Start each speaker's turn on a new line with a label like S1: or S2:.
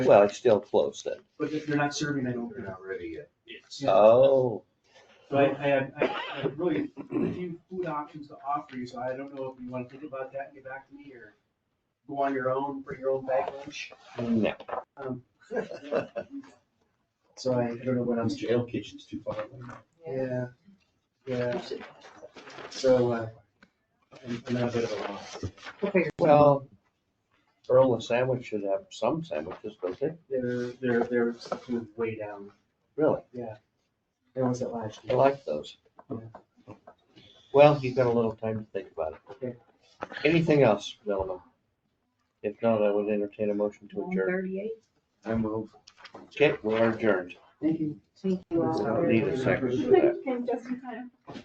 S1: Well, it's still close then.
S2: But if you're not serving that
S3: They're
S2: open
S3: not ready yet.
S2: Yeah.
S1: Oh,
S2: So I, I had, I had really a few food options to offer you, so I don't know if you wanna think about that and get back to me or go on your own, bring your own bag lunch.
S1: no.
S2: Um, So I, I don't know what I'm,
S3: Jail kitchen's too far away.
S2: yeah, yeah, so, uh, I'm, I'm at a bit of a loss.
S1: Well, Earl and Sandwich should have some sandwiches, don't they?
S2: They're, they're, they're kind of way down.
S1: Really?
S2: That was at last
S1: I
S2: year.
S1: like those. Well, you've got a little time to think about it. Anything else, gentlemen? If not, I would entertain a motion to adjourn.
S4: Thirty-eight,
S3: I move.
S1: Okay, we are adjourned.
S2: Thank you.
S4: thank you all.
S1: I don't need a second for that.
S5: Came just in time.